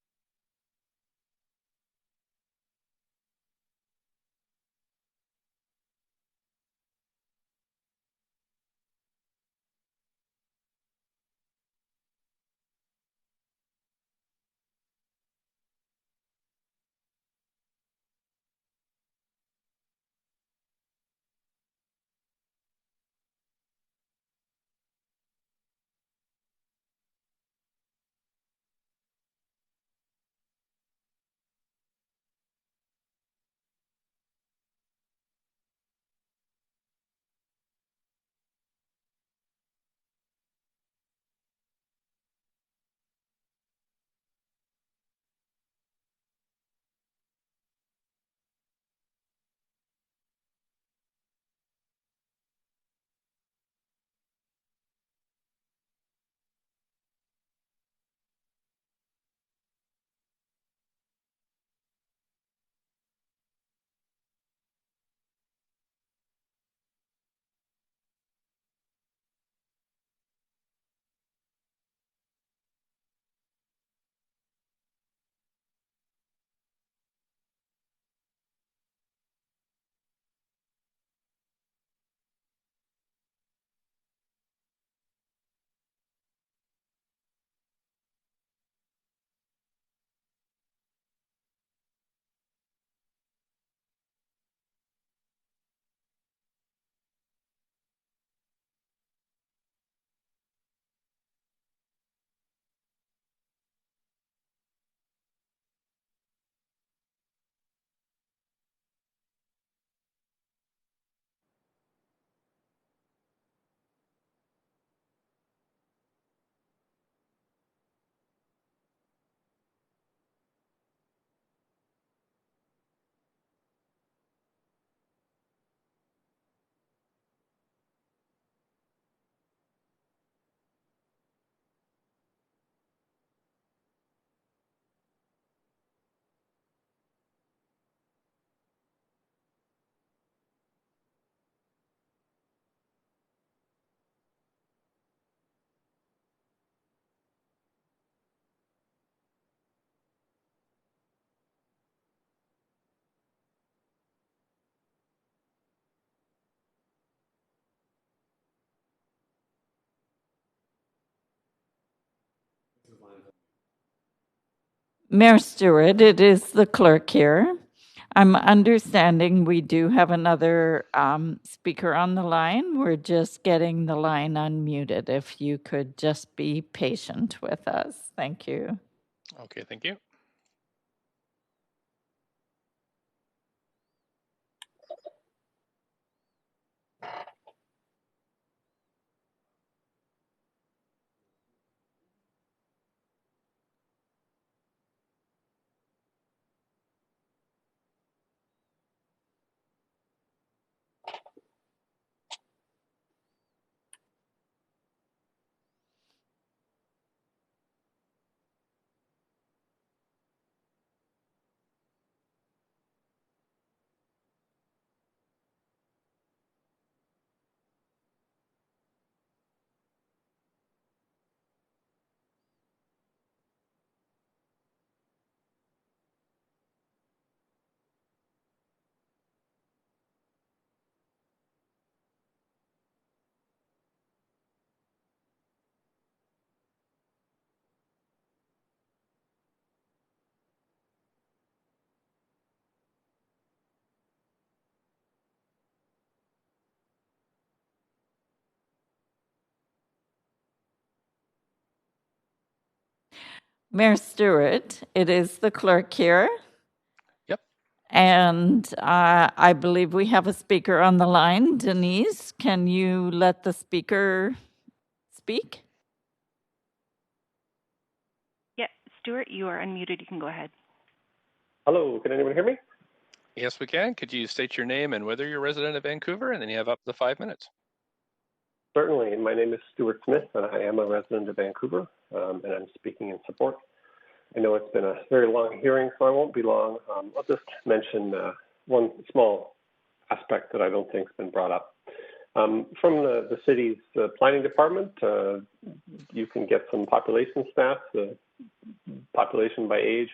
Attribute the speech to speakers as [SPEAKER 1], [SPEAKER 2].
[SPEAKER 1] Mayor Stewart, it is the clerk here. I'm understanding we do have another um, speaker on the line. We're just getting the line unmuted. If you could just be patient with us. Thank you.
[SPEAKER 2] Okay, thank you.
[SPEAKER 1] Mayor Stewart, it is the clerk here.
[SPEAKER 2] Yep.
[SPEAKER 1] And uh, I believe we have a speaker on the line. Denise, can you let the speaker speak?
[SPEAKER 3] Yeah, Stuart, you are unmuted. You can go ahead.
[SPEAKER 4] Hello, can anyone hear me?
[SPEAKER 2] Yes, we can. Could you state your name and whether you're a resident of Vancouver? And then you have up to five minutes.
[SPEAKER 4] Certainly. My name is Stuart Smith, and I am a resident of Vancouver, um, and I'm speaking in support. I know it's been a very long hearing, so I won't be long. Um, I'll just mention uh, one small aspect that I don't think has been brought up. Um, from the, the city's uh, planning department, uh, you can get some population stats, uh, population by age,